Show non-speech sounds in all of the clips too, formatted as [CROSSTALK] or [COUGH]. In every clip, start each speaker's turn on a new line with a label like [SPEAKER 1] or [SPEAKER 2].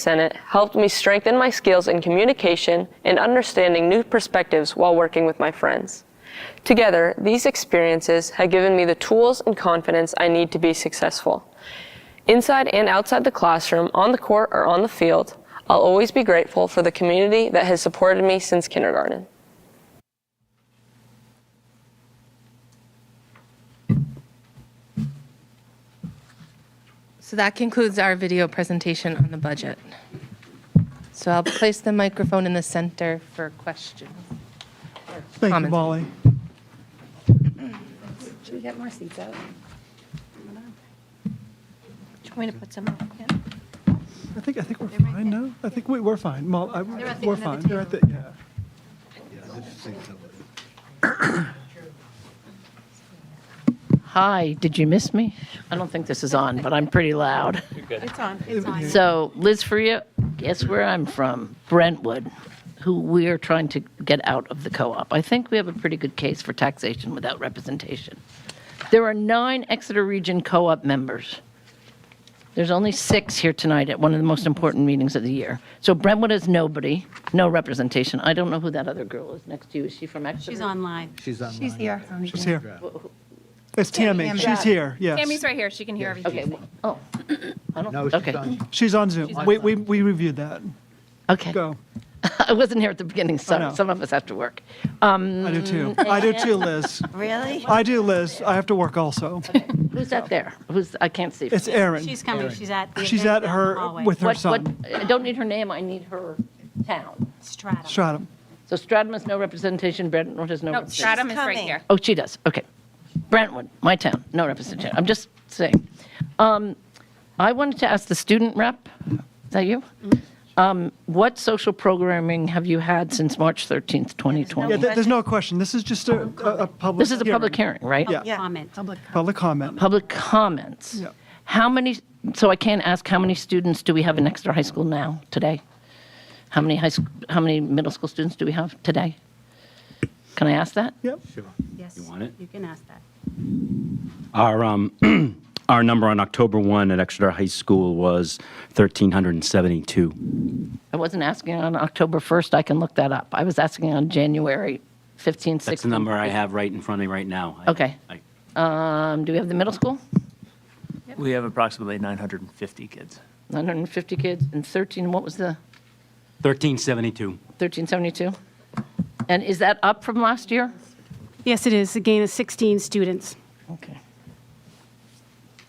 [SPEAKER 1] Senate helped me strengthen my skills in communication and understanding new perspectives while working with my friends. Together, these experiences have given me the tools and confidence I need to be successful. Inside and outside the classroom, on the court or on the field, I'll always be grateful for the community that has supported me since kindergarten.
[SPEAKER 2] So that concludes our video presentation on the budget. So I'll place the microphone in the center for questions.
[SPEAKER 3] Thank you,
[SPEAKER 2] comments.
[SPEAKER 3] Molly.
[SPEAKER 4] Should we get more seats out? Do you want me to put some up? Yeah.
[SPEAKER 3] I think, I think we're fine, no? I think we, we're fine. Molly, I-
[SPEAKER 4] at the
[SPEAKER 3] we're
[SPEAKER 4] end of
[SPEAKER 3] fine.
[SPEAKER 4] the
[SPEAKER 3] They're at the, yeah.
[SPEAKER 5] Hi, did you miss me? I don't think this is on, but I'm pretty [LAUGHS] loud. So Liz Freya, guess where I'm from? Brentwood, who we are trying to get out of the co-op. I think we have a pretty good case for taxation without representation. There are nine Exeter Region co-op members. There's only six here tonight at one of the most important meetings of the year. So Brentwood has nobody, no representation. I don't know who that other girl is next to you. Is she from Exeter?
[SPEAKER 6] She's online.
[SPEAKER 7] She's online.
[SPEAKER 4] She's here.
[SPEAKER 3] She's here. It's Tammy. She's here, yes.
[SPEAKER 8] Tammy's right here. She can hear
[SPEAKER 5] Okay,
[SPEAKER 8] everything.
[SPEAKER 5] well, oh. [COUGHS] I don't-
[SPEAKER 7] No,
[SPEAKER 5] okay.
[SPEAKER 7] she's on.
[SPEAKER 3] She's on Zoom. We, we, we reviewed that.
[SPEAKER 5] Okay.
[SPEAKER 3] Go.
[SPEAKER 5] [LAUGHS] I wasn't here at the beginning, so
[SPEAKER 3] know.
[SPEAKER 5] some of us have to work.
[SPEAKER 3] I do too. I do too, Liz.
[SPEAKER 6] Really?
[SPEAKER 3] I do, Liz. I have to work also.
[SPEAKER 5] Who's that there? Who's, I can't see.
[SPEAKER 3] It's Erin.
[SPEAKER 6] She's coming. She's at the.
[SPEAKER 3] She's at
[SPEAKER 6] event down the
[SPEAKER 3] her,
[SPEAKER 6] hallway.
[SPEAKER 3] with her
[SPEAKER 5] What- what-
[SPEAKER 3] son,
[SPEAKER 5] I don't need her name, I need her town.
[SPEAKER 6] Stratum.
[SPEAKER 3] Stratum.
[SPEAKER 5] So Stratham has no representation, Brentwood has no
[SPEAKER 8] No,
[SPEAKER 5] representation.
[SPEAKER 8] Stratum is right
[SPEAKER 6] coming.
[SPEAKER 8] here.
[SPEAKER 5] Oh, she does, okay. Brentwood, my town, no representation, I'm just saying. Um, I wanted to ask the student rep, is that you? Um, What social programming have you had since March 13th, 2020?
[SPEAKER 3] Yeah, th- there's no question. This is just a, a a public.
[SPEAKER 5] This is a public hearing, right?
[SPEAKER 3] Yeah.
[SPEAKER 6] Comment.
[SPEAKER 3] Public comment.
[SPEAKER 5] Public comments.
[SPEAKER 3] Yeah.
[SPEAKER 5] How many, so I can't ask, how many students do we have in Exeter High School now, today? How many high, sch- how many middle school students do we have today? Can I ask that?
[SPEAKER 3] Yep.
[SPEAKER 6] Yes. You
[SPEAKER 9] want it?
[SPEAKER 6] You can ask that.
[SPEAKER 9] Our, um, [CLEARS THROAT] our number on October 1 at Exeter High School was 1,372.
[SPEAKER 5] I wasn't asking on October 1st, I can look that up. I was asking on January 15th, 16th.
[SPEAKER 9] That's the number I have right in front of me right now.
[SPEAKER 5] Okay.
[SPEAKER 9] I-
[SPEAKER 5] Um, Do we have the middle school?
[SPEAKER 10] We have approximately 950 kids.
[SPEAKER 5] 950 kids and 13, what was the,
[SPEAKER 9] 1,372.
[SPEAKER 5] 1372? And is that up from last year?
[SPEAKER 11] Yes, it is, a gain of 16 students.
[SPEAKER 5] Okay.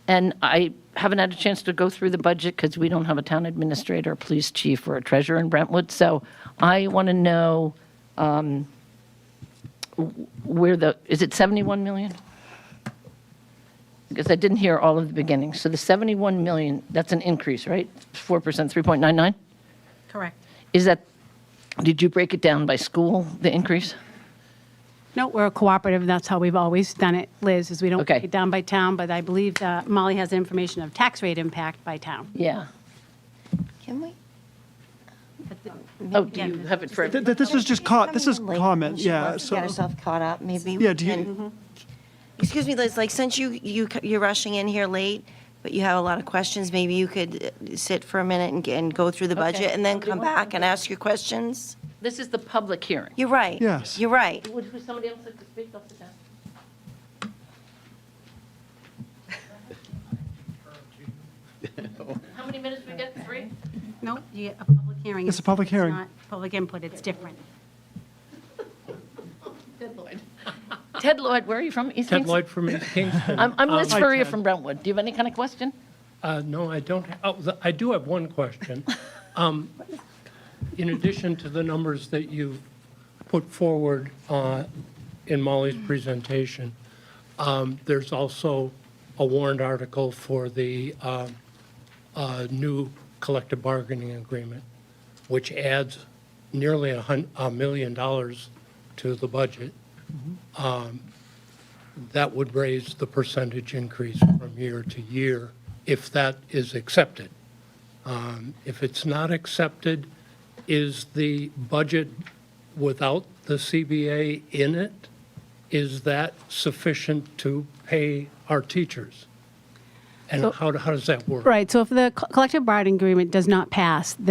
[SPEAKER 5] And I haven't had a chance to go through the budget because we don't have a town administrator, police chief, or a treasurer in Brentwood. So I want to know um, w- where the, is it 71 million? Because I didn't hear all of the beginning. So the 71 million, that's an increase, right? 4%, 3.99?
[SPEAKER 6] Correct.
[SPEAKER 5] Is that, did you break it down by school, the increase?
[SPEAKER 11] No, we're a cooperative, and that's how we've always done it, Liz, is we don't
[SPEAKER 5] Okay.
[SPEAKER 11] break it down by town, but I believe that Molly has the information of tax rate impact by town.
[SPEAKER 5] Yeah.
[SPEAKER 4] Can we?
[SPEAKER 5] Oh, do you have it for?
[SPEAKER 3] Th- th- This was just caught, this is
[SPEAKER 4] Coming in late,
[SPEAKER 3] comment,
[SPEAKER 4] she
[SPEAKER 3] yeah.
[SPEAKER 4] wants to Get
[SPEAKER 3] So
[SPEAKER 4] herself caught up, maybe. we
[SPEAKER 3] Yeah, do you- Mm-hmm.
[SPEAKER 4] can- Excuse me, Liz, like, since you, you, c- you're rushing in here late, but you have a lot of questions, maybe you could uh, sit for a minute and, g- and go through the
[SPEAKER 5] Okay.
[SPEAKER 4] budget and then come back and ask your questions?
[SPEAKER 5] This is the public hearing.
[SPEAKER 4] You're right.
[SPEAKER 3] Yes.
[SPEAKER 4] You're right.
[SPEAKER 5] Would, would somebody else like to speak off the top? How many minutes we get? Three?
[SPEAKER 6] No, you get a public hearing.
[SPEAKER 3] It's a public hearing.
[SPEAKER 6] It's not public input. It's different.
[SPEAKER 5] Ted Lloyd, where are you from? East
[SPEAKER 12] Ted
[SPEAKER 5] Kingston?
[SPEAKER 12] Lloyd from East Kingston.
[SPEAKER 5] I'm, I'm Liz
[SPEAKER 12] Um,
[SPEAKER 5] Furia
[SPEAKER 3] Ted.
[SPEAKER 5] from Brentwood. Do you have any kind of question?
[SPEAKER 12] uh, No, I don't, oh, the- I do have one question. Um, In addition to the numbers that you've put forward uh, in Molly's presentation, um, there's also a warrant article for the um, uh, new collective bargaining agreement, which adds nearly a hun, a million dollars to the budget. um, that would raise the percentage increase from year to year if that is accepted. Um, If it's not accepted, is the budget without the CBA in it, is that sufficient to pay our teachers? And how, how does that work?
[SPEAKER 11] Right, so if the co- collective bargaining agreement does not pass, then